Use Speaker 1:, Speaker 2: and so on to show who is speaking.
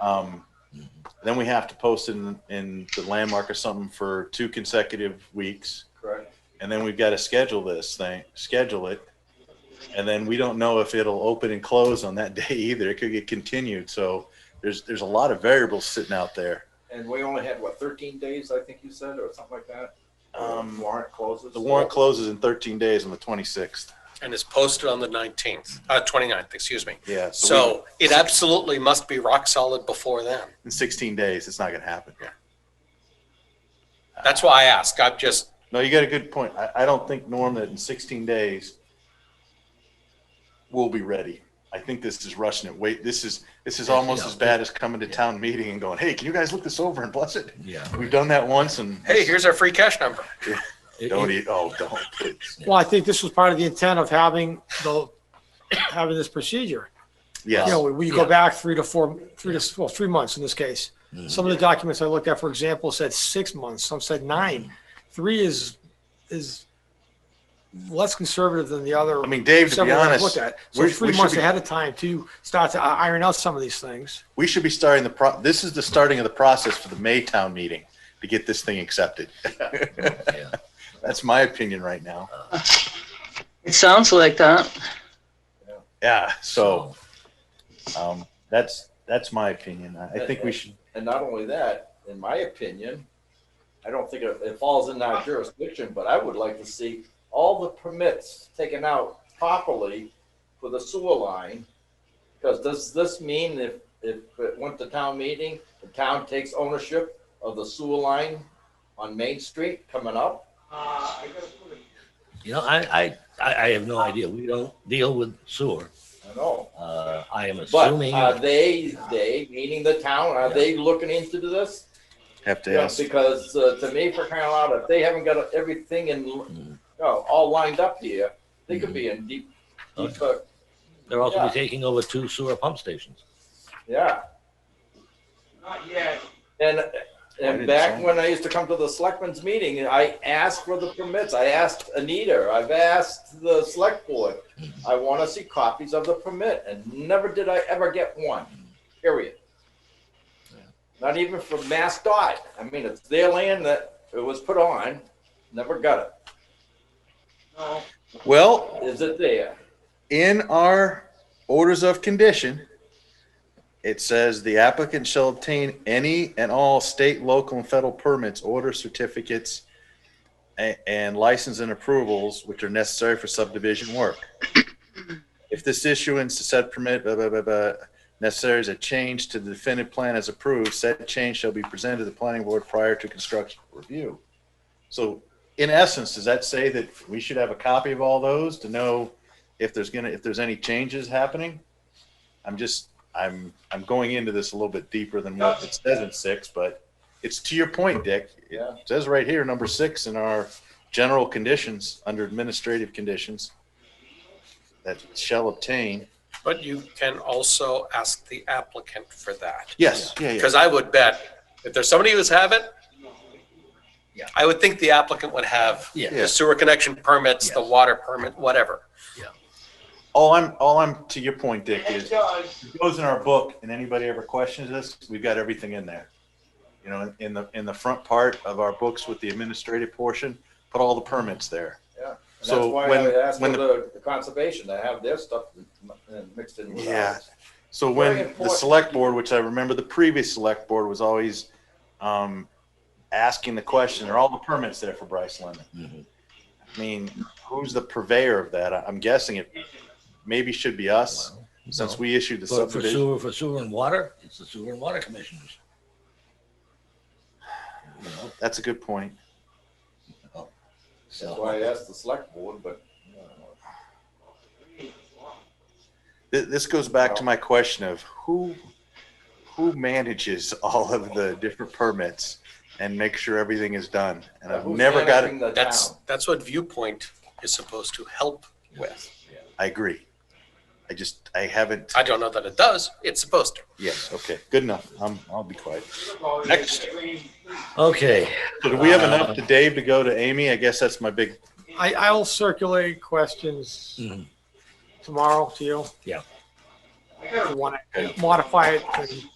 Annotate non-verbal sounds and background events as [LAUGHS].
Speaker 1: Um, then we have to post in, in the landmark or something for two consecutive weeks.
Speaker 2: Correct.
Speaker 1: And then we've got to schedule this thing, schedule it. And then we don't know if it'll open and close on that [LAUGHS] day either. It could get continued. So there's, there's a lot of variables sitting out there.
Speaker 2: And we only had, what, thirteen days, I think you said, or something like that?
Speaker 1: Um,
Speaker 2: Warrant closes?
Speaker 1: The warrant closes in 13 days on the 26th.
Speaker 3: and is posted on the 19th, uh, 29th, excuse me.
Speaker 1: Yeah. we-
Speaker 3: So it absolutely must be rock solid before then.
Speaker 1: in 16 days, it's not going to happen.
Speaker 3: That's why I ask. I'm just,
Speaker 1: No, you got a good point. I, I don't think, Norm, that in 16 days we'll be ready. I think this is rushing it. Wait, this is this is almost as bad as coming to town meeting and going, "Hey, can you guys look this over and bless it?"
Speaker 4: Yeah.
Speaker 1: We've done that once, and
Speaker 3: hey, here's our free cash number.
Speaker 4: It-
Speaker 1: don't
Speaker 4: it-
Speaker 1: eat. Oh, don't. please.
Speaker 5: Well, I think this was part of the intent of having the, having this procedure.
Speaker 1: Yes.
Speaker 5: You know, when you
Speaker 4: Yeah.
Speaker 5: go back three to four, three to, well, three months in this case.
Speaker 1: Mm-hmm.
Speaker 5: Some of the documents I looked at, for example, said six months, some said nine. Three is, is less conservative than the other.
Speaker 1: I mean, Dave. To be
Speaker 5: several I've
Speaker 1: honest,
Speaker 5: looked at. So
Speaker 1: we-
Speaker 5: three
Speaker 1: we should
Speaker 5: months
Speaker 1: be-
Speaker 5: ahead of time to start to i- iron out some of these things.
Speaker 1: we should be starting the pro. This is the starting of the process for the May town meeting to get this thing accepted. [LAUGHS]
Speaker 4: yeah.
Speaker 1: That's my opinion right now.
Speaker 6: It sounds like that.
Speaker 1: Yeah. So um, that's that's my opinion. I, I think we should.
Speaker 2: And not only that, in my opinion, I don't think it, it falls in our jurisdiction, but I would like to see all the permits taken out properly for the sewer line. Because does this mean if, if it went to town meeting, the town takes ownership of the sewer line on Main Street coming up?
Speaker 4: You know, I, I, I I have no idea. We don't deal with sewer.
Speaker 2: I know.
Speaker 4: Uh, I am
Speaker 2: But
Speaker 4: assuming.
Speaker 2: are they, they, meaning the town, are they looking into this?
Speaker 1: Have to
Speaker 2: Yeah,
Speaker 1: ask.
Speaker 2: Because uh, to me, for crying out loud, if they haven't got everything in, you know, all lined up here, they could be in deep, deep, uh,
Speaker 4: They're also
Speaker 2: yeah.
Speaker 4: be taking over two sewer pump stations.
Speaker 2: yeah. Not yet. And,
Speaker 1: didn't
Speaker 2: and back
Speaker 1: sign.
Speaker 2: when I used to come to the selectmen's meeting, I asked for the permits. I asked Anita, I've asked the select board. I want to see copies of the permit and never did I ever get one, period. Not even from Mass Dot. I mean, it's their land that it was put on, never got
Speaker 1: Well,
Speaker 2: it. Is it there?
Speaker 1: in our orders of condition, it says the applicant shall obtain any and all state, local, and federal permits, order certificates, a- and license and approvals which are necessary for subdivision work. If this issuance to said permit, blah, blah, blah, blah, necessary is a change to the definitive plan as approved, said change shall be presented to the planning board prior to construction review. So in essence, does that say that we should have a copy of all those to know if there's gonna, if there's any changes happening? I'm just, I'm, I'm going into this a little bit deeper than what it says in six, but it's to your point, Dick. It
Speaker 2: Yeah.
Speaker 1: says right here, number six in our general conditions, under administrative conditions, that shall obtain.
Speaker 3: But you can also ask the applicant for that.
Speaker 1: Yes, yeah, yeah.
Speaker 3: Because I would bet if there's somebody who's have it,
Speaker 4: Yeah.
Speaker 3: I would think the applicant would have
Speaker 1: Yeah.
Speaker 3: the sewer connection permits, the
Speaker 4: Yes.
Speaker 3: water permit, whatever.
Speaker 1: All I'm, all I'm, to your point, Dick, is it goes in our book and anybody ever questions us, we've got everything in there. You know, in- in the, in the front part of our books with the administrative portion, put all the permits there.
Speaker 2: And that's
Speaker 1: So
Speaker 2: why
Speaker 1: when-
Speaker 2: I asked for
Speaker 1: when
Speaker 2: the the conservation to have their stuff uh, mixed in with
Speaker 1: Yeah.
Speaker 2: ours.
Speaker 1: So
Speaker 2: Very
Speaker 1: when the
Speaker 2: important.
Speaker 1: select board, which I remember the previous select board was always um, asking the question, are all the permits there for Bryce Lemon?
Speaker 4: Mhm.
Speaker 1: I mean, who's the purveyor of that? I- I'm guessing it maybe should be us, since we issued the
Speaker 4: For, for
Speaker 1: subdivision.
Speaker 4: sewer, for sewer and water, it's the sewer and water commissioners. You know,
Speaker 1: That's a good point.
Speaker 2: That's
Speaker 4: so,
Speaker 2: why I asked the select board, but
Speaker 1: Th- This goes back to my question of who, who manages all of the different permits and make sure everything is done? And I've
Speaker 2: Who's
Speaker 1: never got it.
Speaker 2: managing the
Speaker 3: That's,
Speaker 2: town?
Speaker 3: that's what viewpoint is supposed to help with.
Speaker 1: I agree. I just, I haven't.
Speaker 3: I don't know that it does. It's supposed to.
Speaker 1: Yes, okay, good enough. I'm, I'll be quiet.
Speaker 3: Next.
Speaker 4: okay.
Speaker 1: So do we have enough to Dave to go to Amy? I guess that's my big,
Speaker 5: I, I'll circulate questions
Speaker 1: Mm-hmm.
Speaker 4: Mhm.
Speaker 5: tomorrow to you.
Speaker 4: Yeah.
Speaker 5: If you want to modify it and